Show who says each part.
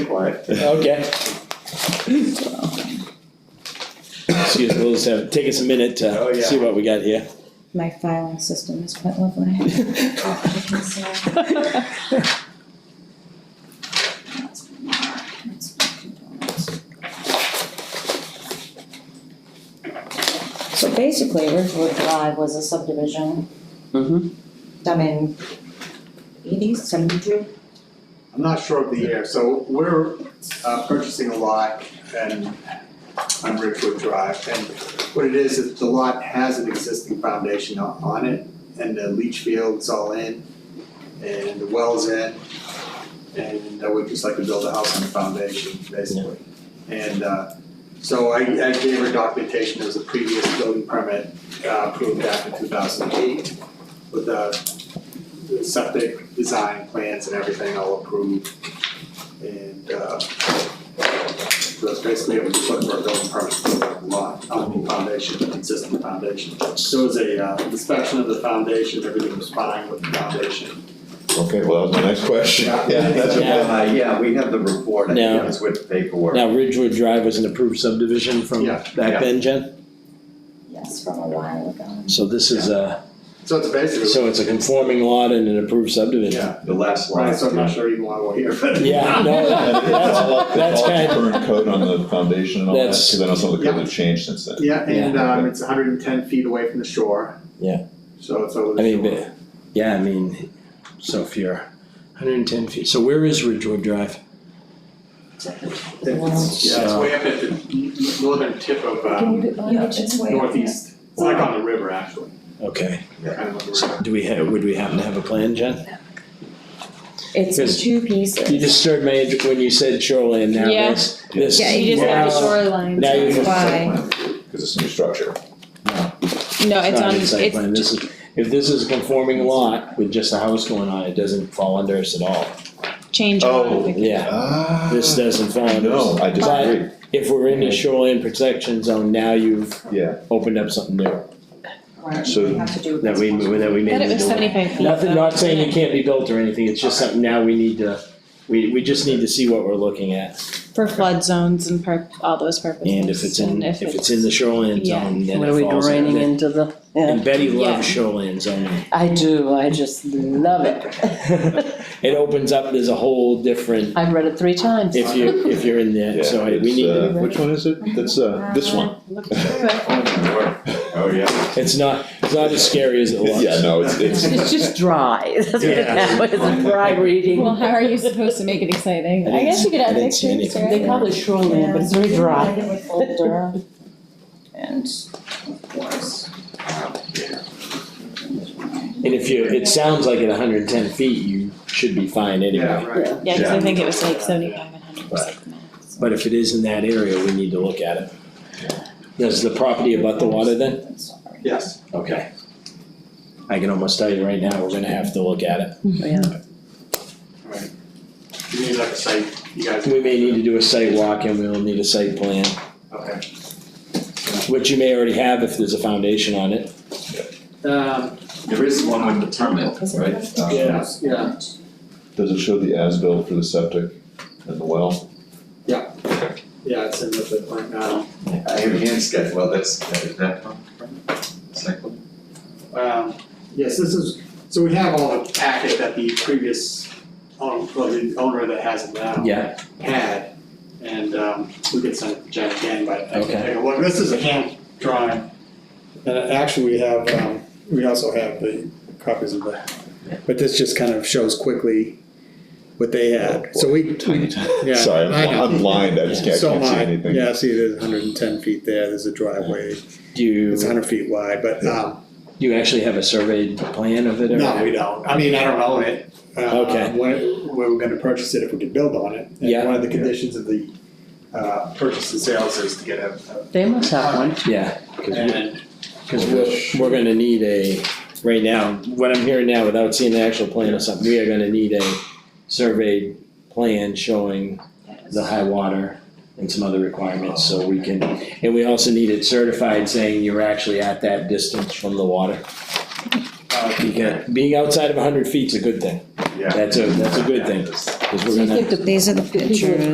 Speaker 1: for it.
Speaker 2: Okay. See, as well as have, take us a minute
Speaker 1: Oh,
Speaker 2: to
Speaker 1: yeah.
Speaker 2: see what we got here.
Speaker 3: My filing system is quite lovely. So basically, Ridgewood Drive was a subdivision
Speaker 4: Mm-hmm.
Speaker 3: done in eighties, seventy-two?
Speaker 1: I'm not sure of the year, so we're uh, purchasing a lot and on Ridgewood Drive. And what it is, is the lot has an existing foundation on on it and the leach field's all in and the well's in. And I would just like to build a house on the foundation, basically. And uh, so I I gave her documentation, there was a previous building permit uh, approved back in two thousand eight with uh, a the septic design plans and everything all approved. And uh, so that's basically it, we just looking for a building permit for the lot, on the foundation, the existing foundation. So it was a uh, inspection of the foundation, everything was fine with the foundation.
Speaker 5: Okay, well, that was my next question.
Speaker 1: Yeah.
Speaker 5: that's okay.
Speaker 6: Uh, yeah, we have the report, I
Speaker 2: No.
Speaker 6: think it's with the paperwork.
Speaker 2: Now Ridgewood Drive was an approved subdivision from
Speaker 1: Yeah.
Speaker 2: back then, Jen?
Speaker 3: Yes, from a while ago.
Speaker 2: So this is a,
Speaker 1: So it's basically,
Speaker 2: so it's a conforming lot and an approved subdivision?
Speaker 1: yeah,
Speaker 6: The last line.
Speaker 1: right, so I'm not sure even why we're here, but.
Speaker 2: Yeah, no,
Speaker 5: And it's all
Speaker 2: that's,
Speaker 5: up- it's
Speaker 2: that's
Speaker 5: all
Speaker 2: kind of,
Speaker 5: Current code on the foundation and all that,
Speaker 2: That's-
Speaker 5: because I know some of the codes have changed since then.
Speaker 1: Yeah, and
Speaker 5: Yeah.
Speaker 1: um, it's hundred and ten feet away from the shore.
Speaker 2: Yeah.
Speaker 1: So it's over
Speaker 2: I
Speaker 1: the
Speaker 2: mean,
Speaker 1: shore.
Speaker 2: but, yeah, I mean, so if you're hundred and ten feet, so where is Ridgewood Drive?
Speaker 1: It's- Yeah, it's
Speaker 2: So-
Speaker 1: way up at the n- n- northern tip of um,
Speaker 3: Yeah, it's way up there.
Speaker 1: northeast. It's like on the river, actually,
Speaker 2: Okay,
Speaker 1: kind of on the river.
Speaker 2: so do we have, would we happen to have a plan, Jen?
Speaker 3: It's in
Speaker 2: Because-
Speaker 3: two pieces.
Speaker 2: You disturbed my, int- when you said shoreline, now
Speaker 7: Yeah.
Speaker 2: this, this.
Speaker 7: Yeah, you just have the
Speaker 2: Wow.
Speaker 7: shoreline.
Speaker 2: Now you
Speaker 3: That's why,
Speaker 5: Because it's a new structure.
Speaker 7: No, it's
Speaker 2: not
Speaker 7: on,
Speaker 2: in site plan.
Speaker 7: it's,
Speaker 2: This is, if this is a conforming lot with just a house going on, it doesn't fall under us at all.
Speaker 7: change.
Speaker 5: Oh,
Speaker 7: order.
Speaker 2: Yeah,
Speaker 5: Ah.
Speaker 2: this doesn't fall under
Speaker 5: No,
Speaker 2: us.
Speaker 5: I disagree,
Speaker 2: If we're in the shoreline protection zone, now you've
Speaker 5: yeah.
Speaker 2: opened up something new
Speaker 3: right,
Speaker 5: So-
Speaker 3: we have to do.
Speaker 2: that we, that we made.
Speaker 7: But it was
Speaker 2: into it.
Speaker 7: seventy-five feet.
Speaker 2: Nothing,
Speaker 7: though.
Speaker 2: not saying it can't be built or anything, it's just something now we need to, we, we just need to see what we're looking at.
Speaker 7: For flood zones and per, all those purposes.
Speaker 2: And if it's in,
Speaker 7: and
Speaker 2: if it's in the shoreline
Speaker 7: Yeah.
Speaker 2: zone, then
Speaker 8: What are
Speaker 2: it
Speaker 8: we
Speaker 2: falls
Speaker 8: draining
Speaker 2: under.
Speaker 8: into the,
Speaker 2: And
Speaker 8: yeah,
Speaker 2: Betty loves
Speaker 7: Yeah.
Speaker 2: shoreline zoning.
Speaker 8: I do, I just love it.
Speaker 2: It opens up, there's a whole different,
Speaker 8: I've read it three times.
Speaker 2: if you, if you're in
Speaker 5: Yeah,
Speaker 2: there, so hey, we
Speaker 5: it's,
Speaker 2: need to
Speaker 5: uh, Which one is it? That's, uh, this one.
Speaker 6: Oh, yeah.
Speaker 2: It's not, it's not as scary as it looks.
Speaker 5: Yeah, no, it's, it's,
Speaker 8: It's just dry, that's what it
Speaker 2: Yeah.
Speaker 8: is, it's dry reading.
Speaker 7: Well, how are you supposed to make it exciting?
Speaker 2: I
Speaker 7: I guess you could
Speaker 2: didn't- I
Speaker 7: add
Speaker 2: didn't see
Speaker 7: pictures,
Speaker 2: anything.
Speaker 7: right?
Speaker 2: They call
Speaker 8: it shoreline, but it's very
Speaker 3: Yeah,
Speaker 8: dry.
Speaker 3: it would folder. And of course,
Speaker 2: And if you, it sounds like at hundred and ten feet, you should be fine
Speaker 1: Yeah,
Speaker 2: anyway.
Speaker 1: right.
Speaker 7: Yeah, cause I think it was
Speaker 1: Yeah.
Speaker 7: like seventy-five and hundred was like max.
Speaker 2: But if it is in that area, we need to look at it. Does the property abut the water then?
Speaker 3: sorry.
Speaker 1: Yes,
Speaker 2: Okay. I can almost tell you right now, we're gonna have to look at it.
Speaker 1: you need like a site, you guys.
Speaker 2: We may need to do a site walk and we'll need a site plan,
Speaker 1: Okay.
Speaker 2: which you may already have if there's a foundation on it.
Speaker 4: Um,
Speaker 6: There is one with the permit,
Speaker 3: Is it
Speaker 6: right?
Speaker 3: right?
Speaker 6: Um,
Speaker 1: Yeah.
Speaker 4: yeah,
Speaker 5: does it show the as-built for the septic and the well?
Speaker 1: Yeah, it's in with it right now.
Speaker 6: I have hand sketch, well, that's, that is that one? Second?
Speaker 1: Um, yes, this is, so we have all the packet that the previous owner, well, the owner that has it now
Speaker 2: Yeah.
Speaker 1: had. And um, we could send it to Jen again, but I
Speaker 2: Okay.
Speaker 1: can take a look. This is a hand drawing. And actually, we have, um, we also have the copies of that. But this just kind of shows quickly what they had. So we,
Speaker 5: Tiny,
Speaker 1: Yeah,
Speaker 5: tiny. Sorry, I'm
Speaker 1: I
Speaker 5: bli-
Speaker 1: know.
Speaker 5: I'm blind, I just can't,
Speaker 1: So
Speaker 5: can't see
Speaker 1: high,
Speaker 5: anything.
Speaker 1: yeah, see, there's hundred and ten feet there, there's a driveway,
Speaker 2: Do you,
Speaker 1: it's
Speaker 2: do
Speaker 1: hundred feet wide, but, um,
Speaker 2: you actually have a surveyed plan of it or?
Speaker 1: no, we don't, I mean, I don't own it. Uh,
Speaker 2: Okay.
Speaker 1: When, we were gonna purchase it if we could build on it. And
Speaker 2: Yeah.
Speaker 1: One of the conditions of the, uh, purchase and sales is to get a.
Speaker 8: They must have one.
Speaker 2: Yeah, 'cause we-
Speaker 1: And,
Speaker 2: Cause we're, we're gonna need a, right now, what I'm hearing now, without seeing the actual plan or something, we are gonna need a surveyed plan showing the high water and some other requirements, so we can, and we also need it certified saying you're actually at that distance from the water.
Speaker 1: uh,
Speaker 2: You can, being outside of hundred feet's a good thing,
Speaker 6: Yeah.
Speaker 2: that's a, that's a good thing, 'cause we're gonna.
Speaker 3: These are the pictures.